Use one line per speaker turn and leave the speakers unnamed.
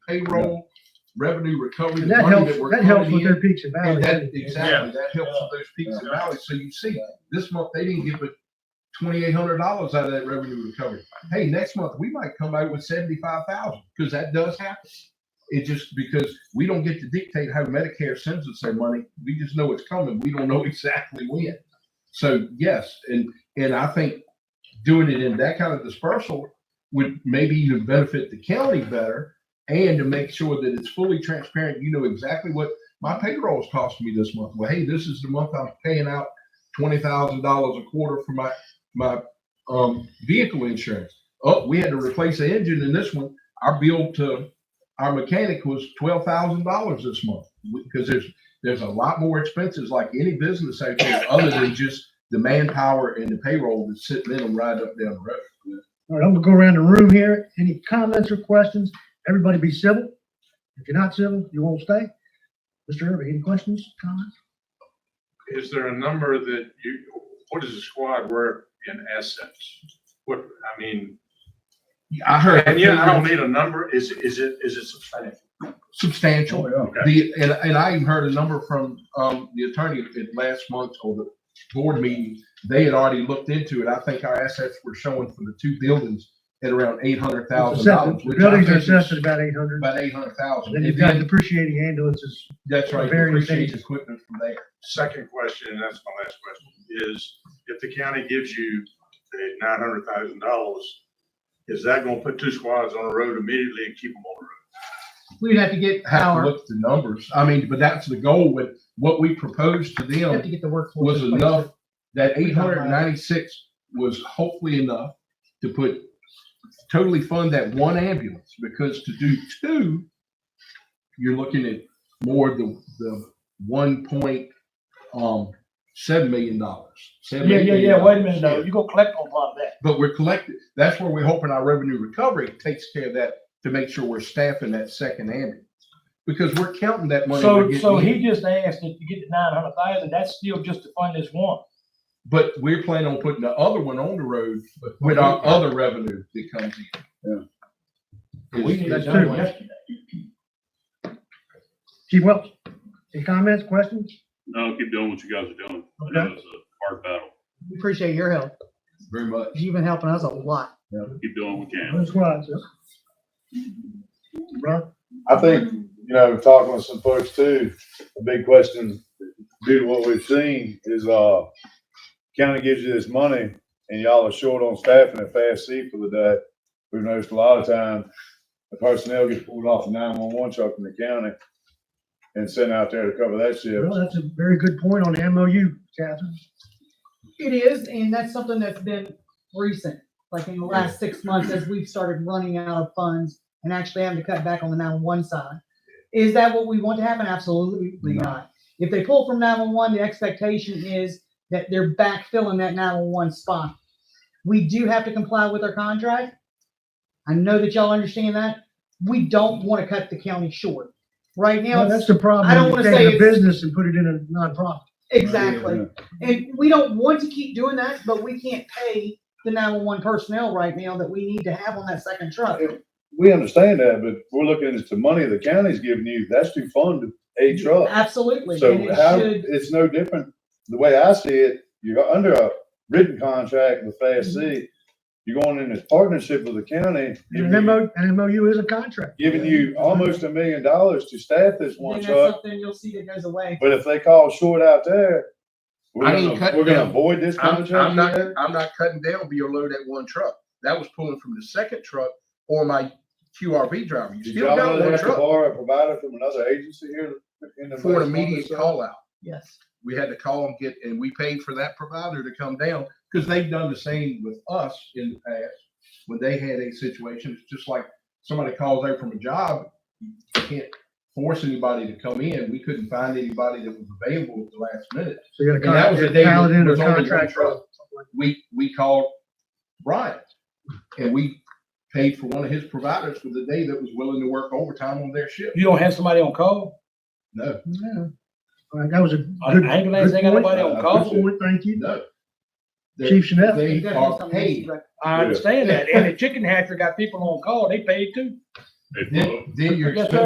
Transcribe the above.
payroll, revenue recovery.
And
the
that
money
helps,
we're
that helps
putting
with
in.
their peaks and
And
valleys.
that,
doesn't it?
exactly, that helps with those peaks and valleys. So you see, this month, they didn't give it twenty-eight hundred dollars out of that revenue recovery. Hey, next month, we might come out with seventy-five thousand, because that does happen. It just, because we don't get to dictate how Medicare sends us their money. We just know it's coming. We don't know exactly when. So yes, and, and I think doing it in that kind of dispersal would maybe even benefit the county better and to make sure that it's fully transparent. You know exactly what my payroll's costing me this month. Well, hey, this is the month I'm paying out twenty thousand dollars a quarter for my my um, vehicle insurance. Oh, we had to replace the engine in this one. Our bill to our mechanic was twelve thousand dollars this month because there's there's a lot more expenses like any business out there other than just the manpower and the payroll that's sitting in them right up down the road.
All right, I'm gonna go around the room here. Any comments or questions? Everybody be civil. If you're not civil, you won't stay. Mr. Irving, any questions, comments?
Is there a number that you, what is a squad worth in assets? What, I mean,
I heard.
and yeah, I don't need a number, is, is it, is it substantial?
substantial.
Okay.
The, and, and I even heard a number from, um, the attorney at last month or the board meeting. They had already looked into it. I think our assets were showing for the two buildings at around eight hundred thousand dollars.
Assessed- the Buildings are assessed at about eight hundred.
About eight hundred thousand.
Then you've got depreciating ambulances.
That's right,
various
depreciate
stages.
equipment from there.
Second question, and that's my last question, is if the county gives you nine hundred thousand dollars, is that gonna put two squads on the road immediately and keep them on the road?
We'd have to get
Have to
power,
look at the numbers. I mean, but that's the goal with what we proposed to them.
have to get the workforce.
was
in place.
enough, that
We
eight
don't
hundred and ninety-six was hopefully enough to put, totally fund that one ambulance, because to do two, you're looking at more the, the one point, um, seven million dollars.
Yeah, yeah, yeah, wait a minute, though, you gonna collect on part of that.
But we're collecting, that's where we're hoping our revenue recovery takes care of that, to make sure we're staffing that second ambulance. Because we're counting that money. we're
So,
getting
so
in.
he just asked if you get the nine hundred thousand, that's still just to fund this one.
But we're planning on putting the other one on the road with our other revenue that comes in. Is-
We did
is-
that
that's true.
yesterday.
Chief Welch, any comments, questions?
No, keep doing what you guys are doing. I know it's a hard battle.
We Appreciate your help.
Very much.
You've been helping us a lot.
Keep doing what you can.
No squads, yeah. Ron?
I think, you know, talking with some folks too, a big question due to what we've seen is, uh, county gives you this money and y'all are short on staffing at Fast C for the day. We've noticed a lot of time, the personnel gets pulled off the nine-one-one truck from the county and sent out there to cover that shift.
Well, that's a very good point on the MOU, Catherine.
It is, and that's something that's been recent, like in the last six months as we've started running out of funds and actually having to cut back on the nine-one-one side. Is that what we want to happen? Absolutely not. If they pull from nine-one-one, the expectation is that they're backfilling that nine-one-one spot. We do have to comply with our contract. I know that y'all understand that. We don't want to cut the county short. Right now,
Well,
it's
that's the problem.
I don't
You
wanna
take
say
a
it's-
Business and put it in a nonprofit.
Exactly. And we don't want to keep doing that, but we can't pay the nine-one-one personnel right now that we need to have on that second truck.
We understand that, but we're looking at the money the county's giving you, that's to fund a truck.
Absolutely.
So
And it
how,
should-
it's no different, the way I see it, you're under a written contract with Fast
Mm-hmm.
C. You're going in this partnership with the county,
And an
giving you-
MO, an MOU is a contract.
giving you almost a million dollars to staff this
then
one
that's
truck.
something you'll see that goes away.
But if they call short out there, we're
I ain't
gonna,
cutting
we're
down.
gonna avoid this
I'm,
contract.
I'm not,
here?
I'm not cutting down your load at one truck. That was pulling from the second truck or my QRV driver. You
Did
still
y'all know
got
they
one
have to
truck
borrow a provider from another agency here? in the
for an
last month or
immediate
so?
call out.
Yes.
We had to call and get, and we paid for that provider to come down because they've done the same with us in the past. When they had a situation, it's just like somebody calls out from a job, you can't force anybody to come in. We couldn't find anybody that was available at the last minute.
So you
And that
got
was
a
the day
contract,
there
in a
was only one
contract.
truck. We, we called Brian and we paid for one of his providers for the day that was willing to work overtime on their shift.
You don't have somebody on call?
No,
All right, That was a good,
Ambulance ain't got
good
nobody
point.
good
on call?
point, thank you.
no. They're-
Chief Chanel,
They
Definitely
are
something we should
paid.
rec-
I understand that, and the chicken hatchery got people on call, they paid too.
If-
Then, then you're
Yes, sir.
expecting